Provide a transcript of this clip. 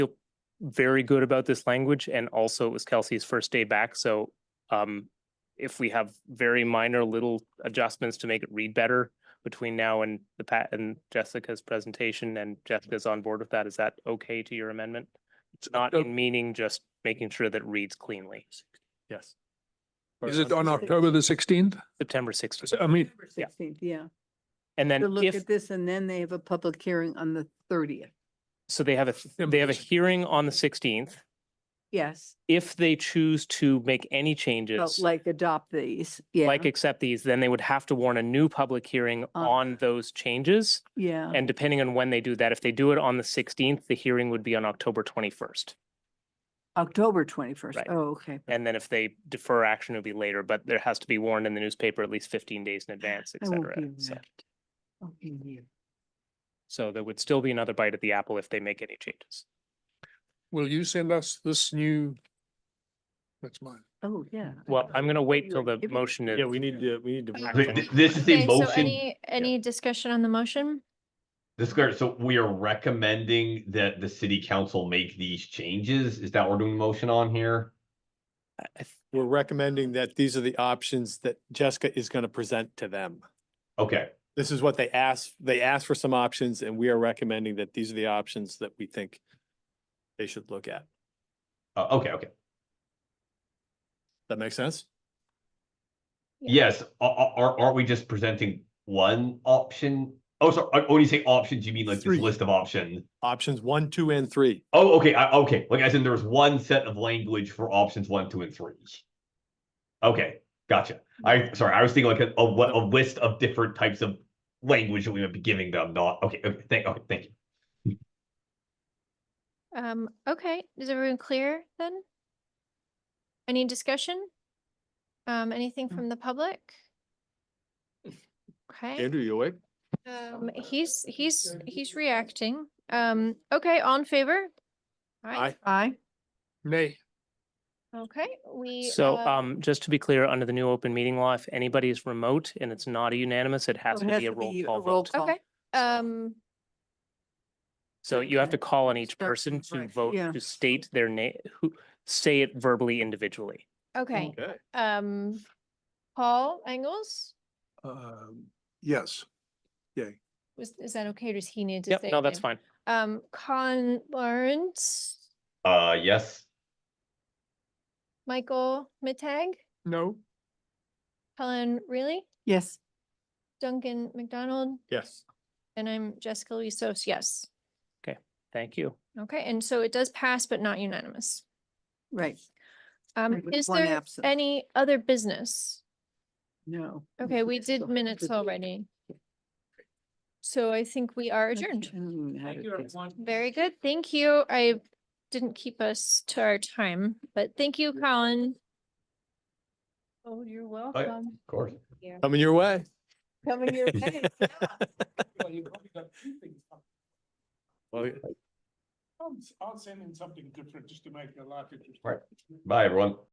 very good about this language and also it was Kelsey's first day back, so um if we have very minor little adjustments to make it read better between now and the Pat and Jessica's presentation and Jessica's on board with that, is that okay to your amendment? It's not in meaning, just making sure that it reads cleanly. Yes. Is it on October um, the sixteenth? September sixteenth. I mean, Yeah. Sixteenth, yeah. And To then look if, at this and then they have a public hearing on the thirtieth. so they have a, th- they have a September. hearing on the sixteenth. Yes, If they choose to make any but changes, like adopt these. Yeah, Uh. like accept these, then they would have to warn a new public hearing on those changes. yeah. And depending on when they do that, if they do it on the sixteenth, the hearing would be on October twenty-first. October twenty-first. Right. Oh, okay. And then if they defer action, it'll be later, but there has to be warned in the newspaper at least fifteen days in advance, et I won't cetera. be So- around. I'll be here. So there would still be another bite at the apple if they make any changes. will you send us this new? That's mine. Oh, yeah. I Well, thought- I'm gonna wait you till were the giving- motion is. Yeah, we need to, we need to. Uh, vote Th- on th- it. This is a Okay, so motion, any, any discussion on the motion? Yeah. this, is good. so we are recommending that the city council make these changes. Is that what we're doing the motion on here? I- I th- We're recommending that these are the options that Jessica is going to present to them. Okay, This is what they asked, they asked for some options and we are recommending that these are the options that we think they should look at. uh, okay, okay. That makes sense? Yes, are, are, aren't we just presenting one option? Oh, sorry, uh, when you say options, you mean like Three. this list of options? Options one, two, and three. Oh, okay, I, okay, like I said, there was one set of language for options one, two, and three. Okay, gotcha. I, sorry, I was thinking like a, a, wa- a list of different types of language that we would be giving them, not, okay, okay, thank, okay, thank you. Um, okay, is everyone clear then? Any discussion? Um, anything Mm. from the public? Okay, Andrew, you awake? um, he's, he's, he's reacting. Um, okay, all in favor? Aye. Aye. Nay. Okay, we. So uh, um, just to be clear, under the new open meeting law, if anybody is remote and it's not a unanimous, it has So Oh, it to has be a to roll be a call roll vote. call. Okay, um, So you have to Okay. call on each Start person from to right. vote, Yeah. to state their name, who, say it verbally individually. okay, Okay. um, Paul Engels, Um, yes. was, is that okay? or Does he need to Yep, say? no, it that's now? fine. Um, Colin Lawrence, Uh, yes, Michael Mittag, No. Helen Reilly? Yes, Duncan McDonald, Yes. and I'm Jessica Lusos, yes. Thank you. Okay, and so it does pass, but not unanimous. right. Um, And with is one there absent. any other business? No. Okay, we Yes, so did I minutes did- already. So I think we are I can't- I adjourned. don't even know how to do this. Very good, thank you. I didn't keep us to our time, but thank you, Colin. Oh, you're of welcome. course. Coming your way. Coming your way. yeah. Well, I'll send in something different just to make your life interesting. Bye, everyone.